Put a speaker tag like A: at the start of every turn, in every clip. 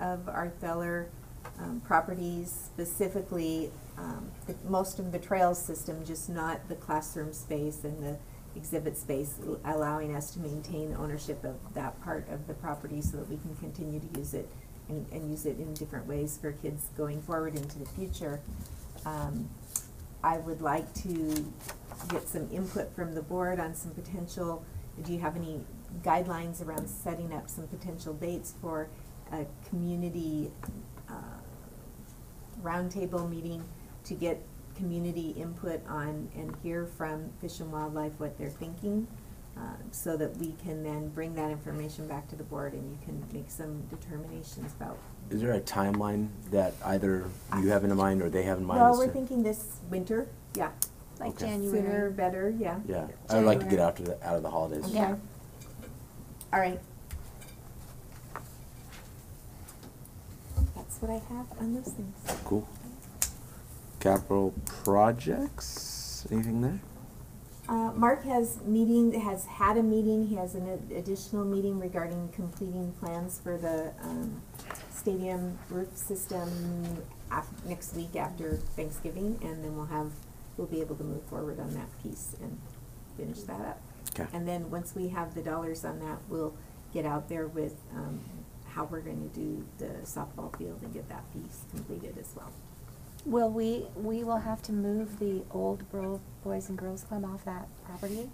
A: of our Feller um, properties, specifically um, the- most of the trails system, just not the classroom space and the exhibit space, l- allowing us to maintain ownership of that part of the property so that we can continue to use it and, and use it in different ways for kids going forward into the future. Um, I would like to get some input from the board on some potential, do you have any guidelines around setting up some potential dates for a community uh, roundtable meeting to get community input on and hear from Fish and Wildlife what they're thinking? uh, So that we can then bring that information back to the board and you can make some determinations about.
B: Is there a timeline that either you have in mind or they have in mind?
A: Well,
B: as
A: we're
B: to-
A: thinking this winter, yeah.
C: Like
B: Okay.
A: Sooner,
C: January.
A: better, yeah.
B: Yeah, I would like to get
C: January.
B: after the, out of the holidays.
A: Okay.
C: Yeah.
A: All right. That's what I have on those things.
B: Cool. Capital projects, anything there?
A: Uh, Mark has meeting, has had a meeting, he has an ad- additional meeting regarding completing plans for the, um, stadium roof system af- next week after Thanksgiving, and then we'll have, we'll be able to move forward on that piece and finish that up.
B: 'Kay.
A: And then, once we have the dollars on that, we'll get out there with, um, how we're gonna do the softball field and get that piece completed as well.
C: Will we, we will have to move the old Bro- Boys and Girls Club off that property?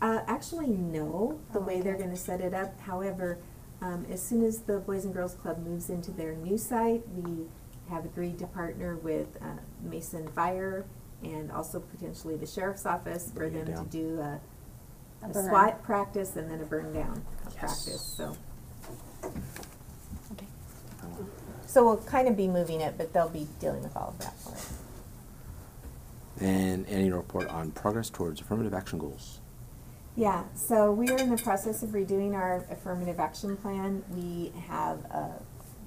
A: Uh, actually, no, the
C: Oh,
A: way they're
C: okay.
A: gonna set it up, however, um, as soon as the Boys and Girls Club moves into their new site, we have agreed to partner with, uh, Mason Fire and also potentially the Sheriff's Office for
B: Bring
A: them
B: it
A: to
B: down.
A: do a,
C: A
A: a
C: burn.
A: SWAT practice and then a burn down uh,
B: Yes.
A: practice, so.
C: Okay.
A: So we'll kind of be moving it, but they'll be dealing with all of that for us.
B: And annual report on progress towards affirmative action goals.
A: Yeah, so we are in the process of redoing our affirmative action plan. We have uh,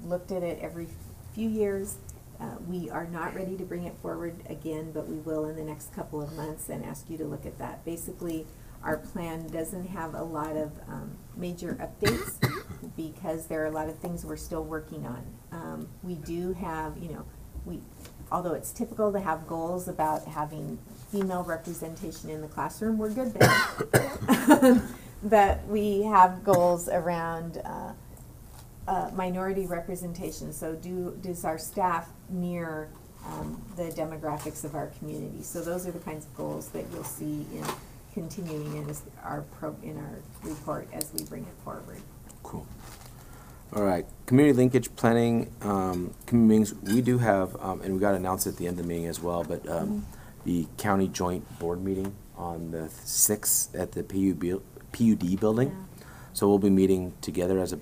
A: looked at it every few years. Uh, We are not ready to bring it forward again, but we will in the next couple of months and ask you to look at that. Basically, our plan doesn't have a lot of um, major updates because there are a lot of things we're still working on. Um, We do have, you know, we, although it's typical to have goals about having female representation in the classroom, we're good there. But we have goals around uh, uh, minority representation, so do, does our staff mirror um, the demographics of our community? So those are the kinds of goals that you'll see in continuing in this- our, pro- in our report as we bring it forward.
B: Cool. All right, community linkage planning, um, community meetings, we do have, um, and we got announced at the end of the meeting as well, but,
A: Mm-hmm.
B: um, the county joint board meeting on the sixth at the PU buil- PUD building.
A: Yeah.
B: So we'll be meeting together as a,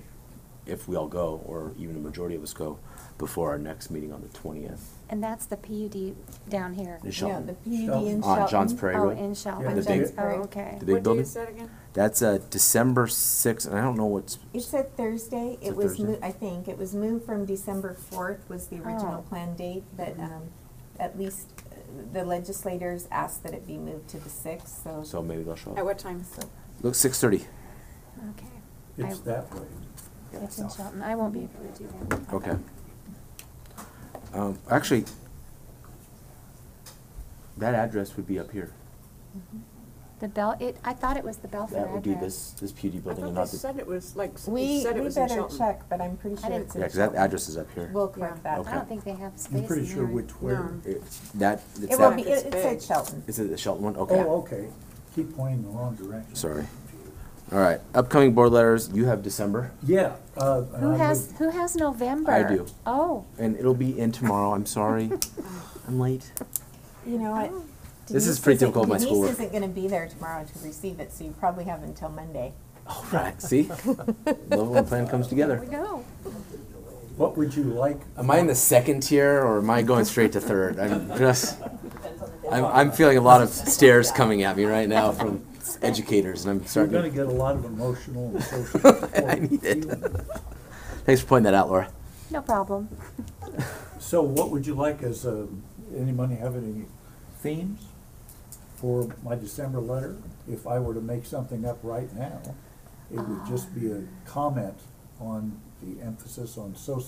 B: if we all go, or even a majority of us go, before our next meeting on the twentieth.
C: And that's the PUD down here.
B: In Shelton.
A: Yeah, the PUD in Shelton.
B: On Johns Prairie
C: Oh,
B: Road.
C: in
B: Yeah,
C: Shelton.
B: the
C: Oh,
B: big-
C: okay.
B: The big
D: What day
B: building.
D: is that again?
B: That's, uh, December sixth, and I don't know what's,
A: It's a Thursday,
B: It's a
A: it was, mo-
B: Thursday.
A: I think, it was moved from December fourth was the original
C: Oh.
A: planned date, but,
D: Mm-hmm.
A: um, at least uh, the legislators asked that it be moved to the sixth, so.
B: so maybe they'll show
D: At
B: up.
D: what time?
A: so-
B: Look, six thirty.
C: Okay.
E: It's
C: I-
E: that way.
C: It's in Shelton. I won't be able to do that.
B: Okay. Um, actually, that address would be up here.
A: Mm-hmm.
C: The Bel, it, I thought it was the Belfair address.
B: That would be this, this PUD
D: Oh, I
B: building and
D: thought they
B: not the.
D: said it was, like, they
A: We,
D: said it
A: we
D: was in
A: better
D: Shelton.
A: check, but I'm pretty
C: I
A: sure
C: didn't-
A: it's
B: Yeah,
A: in
B: because
A: Shelton.
B: that address is up here.
A: We'll
D: Yeah.
A: correct
C: I
A: that.
B: Okay.
C: don't think they have space in
E: I'm
C: there.
E: pretty sure which way.
D: No.
B: It- That, it's
A: It will
B: that,
A: be,
D: It's
A: it it said
D: big.
A: Shelton.
B: is it the Shelton one? Okay.
E: Oh, okay. Keep pointing the wrong direction.
B: Sorry. All right, upcoming board letters, you have December,
E: Yeah. uh, and
C: Who
E: I
C: has,
E: would-
C: who has November?
B: I do.
C: Oh,
B: and it'll be in tomorrow, I'm sorry. I'm late.
A: You know what?
C: Oh,
B: This is
A: Denise
B: pretty
A: isn't-
D: E
B: typical of my schoolwork.
A: Denise isn't gonna be there tomorrow to receive it, so you probably have until Monday.
B: All right, see? Love when a plan comes
C: there
B: together.
C: we go.
E: What would you like?
B: Am I in the second tier or am I going straight to third? I'm just, I'm, I'm feeling a lot of stares coming at me right now from educators and I'm
E: You're
B: starting
E: gonna
B: to.
E: get a lot of emotional and social support.
B: I need it. Thanks for pointing that out, Laura.
C: No problem.
E: So what would you like as, um, anybody have any themes for my December letter? If I were to make something up
C: Um.
E: right now, it would just be a comment on the emphasis on social